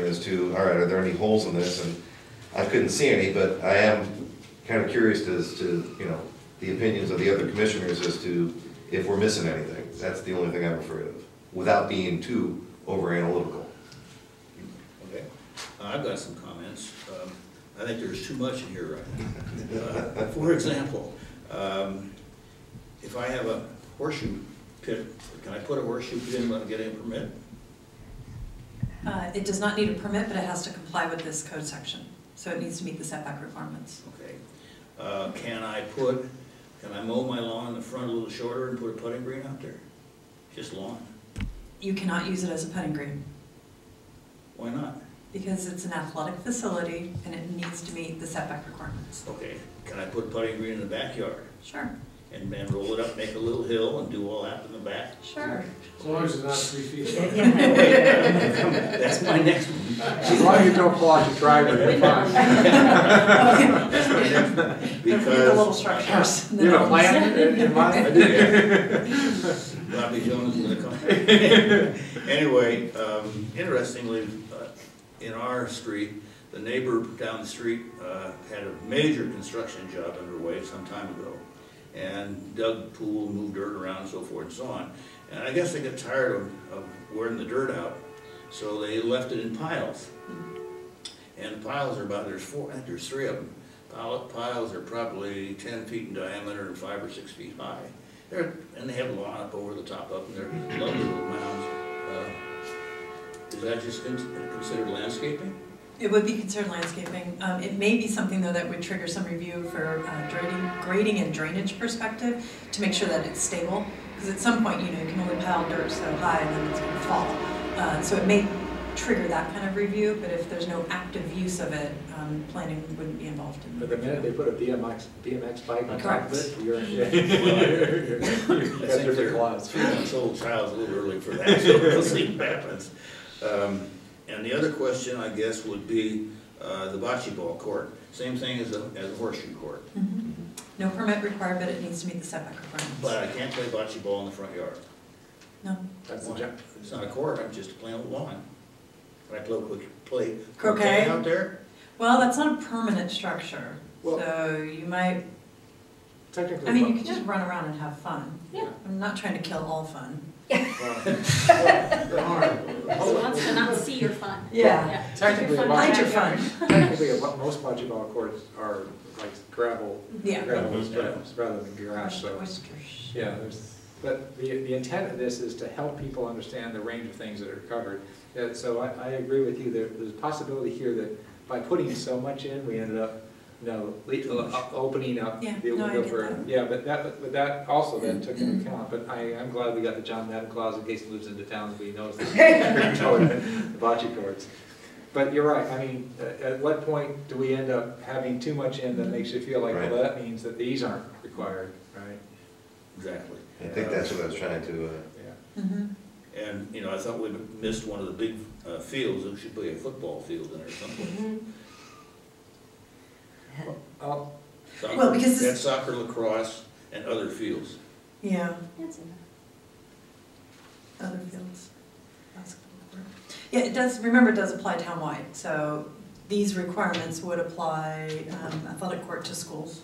to, all right, are there any holes in this? And I couldn't see any, but I am kind of curious as to, you know, the opinions of the other commissioners as to if we're missing anything. That's the only thing I'm afraid of, without being too over analytical. Okay, Uh, I've got some comments. Um, I think there's too much in here right now. Uh, For example, um, if I have a horseshoe pit, can I put a horseshoe pit in when I get a permit? Uh, It does not need a permit, but it has to comply with this code section, so it needs to meet the setback requirements. Okay. Uh, Can I put, can I mow my lawn in the front a little shorter and put a putting green out there? Just lawn. You cannot use it as a putting green, Why not? because it's an athletic facility and it needs to meet the setback requirements. Okay, can I put putting green in the backyard Sure, and then roll it up, make a little hill and do all that in the back? sure. As long as it's not three feet. That's my next one. As long as you don't pull out your driveway, you're fine. They're the little Because structures. You have a plan in- in mind? Bobby Jones is gonna come. Anyway, um, interestingly, uh, in our street, the neighbor down the street, uh, had a major construction job underway some time ago. And dug pool, moved dirt around and so forth and so on. And I guess they got tired of, of wearing the dirt out, so they left it in piles. And the piles are about, there's four, I think there's three of them. Pile- Piles are probably ten feet in diameter and five or six feet high. They're, and they have a lawn up over the top of them, they're lovely little mounds. Uh, Is that just con- considered landscaping? It would be considered landscaping. Um, It may be something, though, that would trigger some review for uh, grading, grading and drainage perspective to make sure that it's stable. Because at some point, you know, you can only pile dirt so high and then it's going to fall. Uh, So it may trigger that kind of review, but if there's no active use of it, um, planning wouldn't be involved in But it. the minute they put a BMX, BMX bike on top of it, you're in. I You've got think different they're- laws. Three months old child's a little early for that, so we'll see what happens. Um, And the other question, I guess, would be uh, the bocce ball court, same thing as a, as a horseshoe court. Mhm. No permit required, but it needs to meet the setback requirements. But I can't play bocce ball in the front yard. No, That's the Why? jump. It's not a court, I'm just playing with lawn. Can I play, quick- play Croquet? croquet out there? well, that's not a permanent structure, Well- so you might, Technically. I mean, you well, could just run around and have fun. Yeah. I'm not trying to kill all fun. Who wants to not see your fun? Yeah. Technically, Your fun mine- Mind in your the backyard. fun. Technically, a lot- most bocce ball courts are like gravel, Yeah. gravel steps rather than garage, so. Oysters. Yeah, there's, but the, the intent of this is to help people understand the range of things that are covered. Yeah, so I, I agree with you, there, there's a possibility here that by putting so much in, we ended up, you know, le- uh, opening up Yeah, the no, I window get for. that. Yeah, but that, but that also then took into account, but I, I'm glad we got the John Madden clause in case he moves into town, so he knows the the bocce courts. But you're right, I mean, at, at what point do we end up having too much in that makes you feel like, Right. well, that means that these aren't required, right? Exactly. I think that's what I was trying to, uh, Yeah. Mm-hmm. And, you know, I thought we missed one of the big uh, fields, there should be a football field in there somewhere. Oh, Soccer- Well, because this- And soccer, lacrosse, and other fields. Yeah, That's enough. other fields. basketball court. Yeah, it does, remember, it does apply townwide, so these requirements would apply um, athletic court to schools.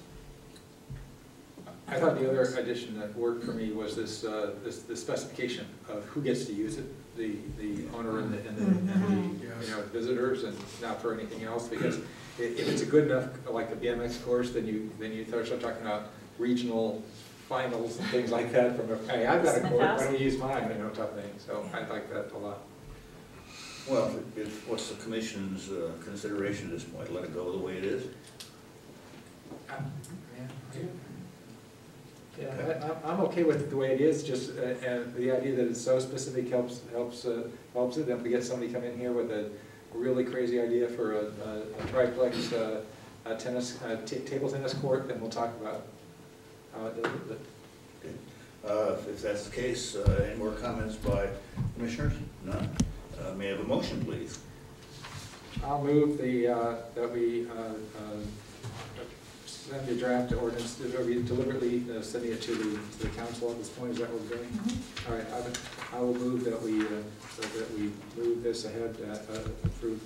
I thought the other addition that worked for me was this, uh, this, the specification of who gets to use it, the, the owner and the, and the, and the, you know, visitors and not for anything else, because i- if, it's a good enough, like the BMX course, then you, then you start talking about regional finals and things like that from, a- hey, I've got a court, why don't we use mine, you know, type thing, so I like that a lot. Well, if, what's the commission's uh, consideration at this point, let it go the way it is? Yeah, I- I, I'm okay with the way it is, just, uh, and the idea that it's so specific helps, helps, uh, helps it, if we get somebody come in here with a really crazy idea for a, a a triplex, uh, a tennis, a ta- table tennis court, then we'll talk about how it does it, Uh, If that's the case, uh, any more comments by commissioners? None? Uh, May I have a motion, please? but I'll move the, uh, that we, uh, uh, send the draft ordinance, that we deliberately uh, sending it to the, to the council at this point, is that what we're doing? Mm-hmm. All right, I would- I will move that we, uh, that we move this ahead, uh, uh, approve